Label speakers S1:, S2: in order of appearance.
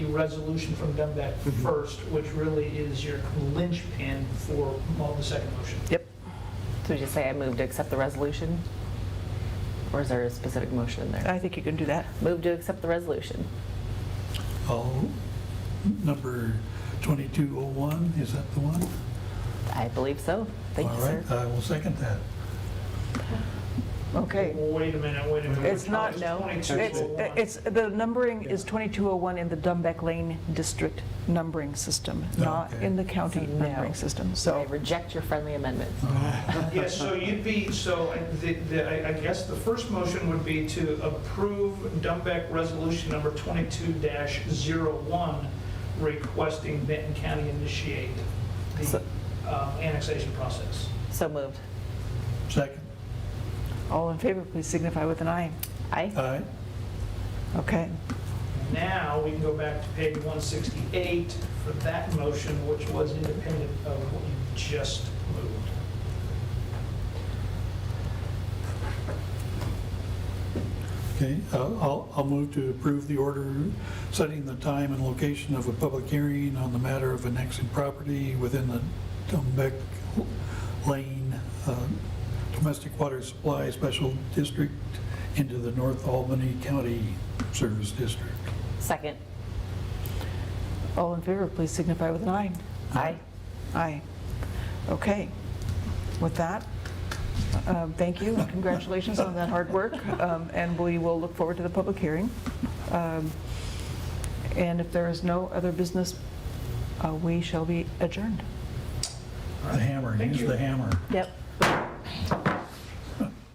S1: resolution from Dembeck first, which really is your linchpin for mo- the second motion.
S2: Yep. So we just say I move to accept the resolution? Or is there a specific motion in there?
S3: I think you can do that.
S2: Move to accept the resolution.
S4: I'll- number 2201, is that the one?
S2: I believe so. Thank you,
S4: All
S2: sir.
S4: right, I will second that.
S3: Okay.
S1: Well, wait a minute, wait a minute. oh
S3: It's
S1: We're
S3: not,
S1: talking
S3: no. It's,
S1: 2201.
S3: it's, the numbering is 2201 in the Dumbeck Lane District numbering system, not
S4: Okay.
S3: in the county
S2: So no.
S3: numbering system,
S2: I
S3: so.
S2: reject your friendly amendment.
S1: Yeah, so you'd be, so I- the- the- I I guess the first motion would be to approve Dumbeck Resolution Number 22-01 requesting Benton County initiate the
S2: So-
S1: um, annexation process.
S2: So moved.
S4: Second,
S3: All in favor, please signify with an aye.
S2: Aye?
S4: aye,
S3: Okay.
S1: Now, we can go back to page 168 for that motion, which was independent of what you just moved.
S4: okay. I'll- I'll, I'll move to approve the order setting the time and location of a public hearing on the matter of annexing property within the Dumbeck Lane uh, Domestic Water Supply Special District into the North Albany County Service District.
S2: Second.
S3: All in favor, please signify with an aye.
S2: Aye?
S3: Aye. Okay. With that, um, thank you and congratulations on that hard work. um, And we will look forward to the public hearing. Um, And if there is no other business, uh, we shall be adjourned.
S4: The hammer,
S1: Thank
S4: use
S1: you.
S4: the hammer.
S2: Yep.